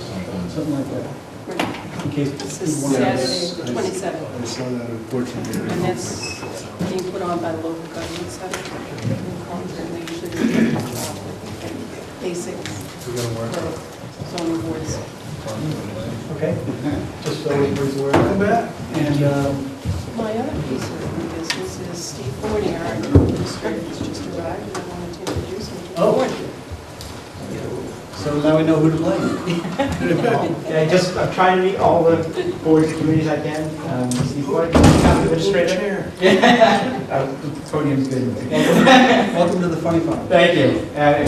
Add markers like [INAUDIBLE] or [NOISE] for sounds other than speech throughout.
something like that, in case. This is people want to- Saturday, the 27th, I saw that unfortunately. and that's being put on by the local government center. And Concord, and they usually do, uh, basics We gotta work on for zoning boards. it. Okay, just so everybody's aware of that. And, um, My other piece of new business is Steve Forney, our administrator, has just arrived, and I wanted to introduce him to the Oh. board. so now we know who to blame. Yeah, just, I'm trying to meet all the boards and committees I can. Um, Steve White, Town Administrator. [LAUGHS] Um, Podium's good. Welcome to the funny farm. Thank you. Uh,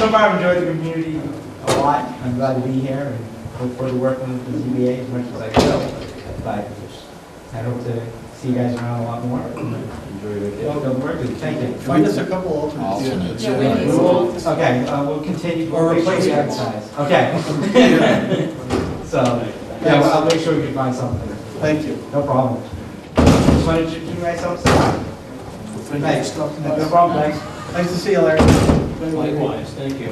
So far, I've enjoyed the community a lot. I'm glad to be here and look forward to working with the ZBA as much as I can. But I hope to see you guys around a lot more. Welcome, work, thank you. Find us a couple alternates. Alternates, Yeah, we need We some will- office. Okay, uh, we'll continue. Or we'll make sure we replacements. advertise. Okay. [LAUGHS] So, yeah, well, I'll make sure we can find something. Thank you. No problem. Just wanted to do myself some. Thanks for talking to No us. problem, thanks. Nice to see you, Larry. Likewise, thank you.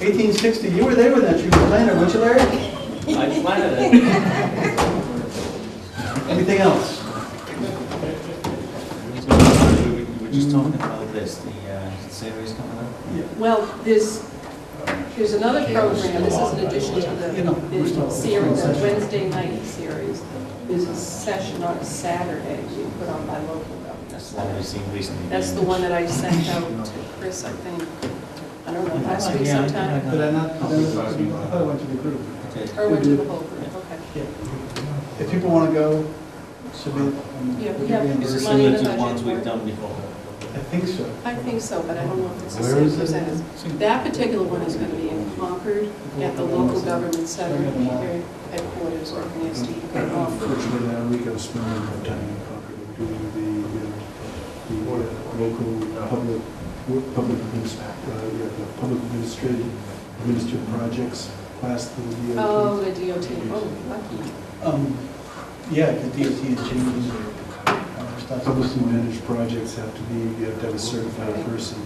1860, you were there with that tree planter, weren't you, Larry? [LAUGHS] I planted it. Anything else? We were just talking about this, the uh, series coming up. Well, there's, there's another program, this is in addition to You know, the- we're still- the series, the Wednesday night series. There's a session on Saturday being put on by local governments. That's the one we've seen recently. That's the one that I sent out to Chris, I think, I don't know, last week Yeah, I- sometime, Did I not, I thought I went to the group. Okay. or went to the whole group, okay. If people want to go, submit. um, and Yeah, we give have- Is it reimbursement. similar Money in to the the ones budget. we've done before? I think so. I think so, but I don't know if it's the Where is same it? percentage. That particular one is going to be in Concord, at the local government center, here headquarters, or in the SD, Unfortunately, that we gotta spend a lot of time in Concord doing the, uh, the local public, work- public, adminis- uh, yeah, the public administrative, administered projects class that we did. Oh, the DOT, oh, lucky. Um, Yeah, the DOT is changing their uh, stuff. Publicly managed projects have to be, you have to have a certified person.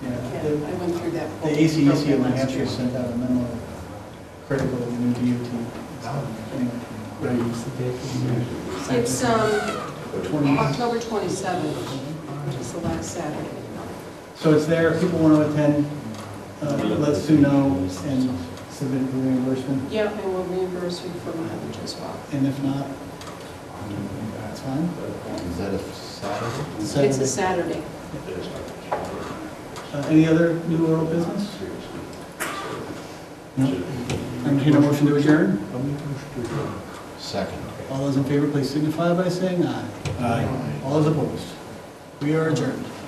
Yeah, Yeah, the- I went through that. The whole ACEC program in New last Hampshire year. sent out a memo critical of the new DOT. Anyway, It's, um, twenty- October 27th, which is the last Saturday. So it's there, if people want to attend, uh, let Sue know and submit for reimbursement. Yeah, and we'll reimburse you for mileage as well. And if not, that's fine. Is that a Saturday? It's a Saturday. Saturday. Uh, Any other new oral business? No. I'm here to motion to adjourn. I'll make a motion to adjourn. Second. All those in favor, please signify by saying aye. Aye. All those opposed? We are adjourned.